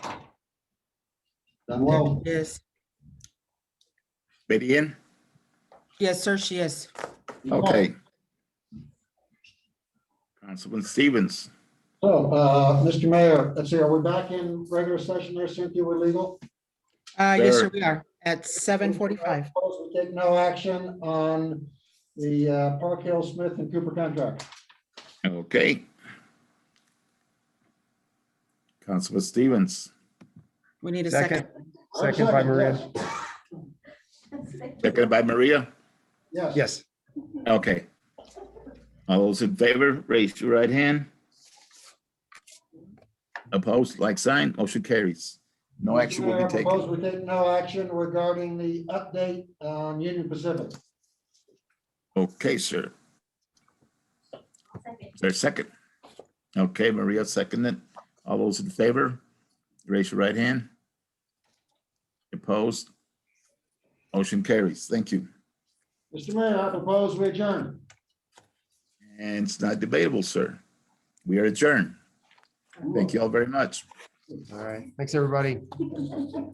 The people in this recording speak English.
Dr. Hello. Diaz. Ready in? Yes, sir, she is. Oh. Okay. Councilman Stevens, So, uh, Mr. Mayor, let's see, are we back in regular session there, Cynthia, we're legal? Uh, yes, Sir. sir, we are at seven forty-five. We take no action on the uh, Park Hill Smith and Cooper contract. okay. Councilman Stevens, We need a Second. second. Second by Maria. seconded by Maria, Yes. Yes. Yes, okay. All those in favor, raise your right hand. Opposed, like sign, motion carries. No Mr. action will Mayor, be I taken. propose We take no action regarding the update on Union Pacific. Okay, sir. There's second. Okay, Maria seconded. All those in favor, raise your right hand. Opposed? Motion carries. Thank you. Mr. Mayor, I propose we adjourn. And it's not debatable, sir. We are adjourned. Thank you all very much. all right. Thanks, everybody.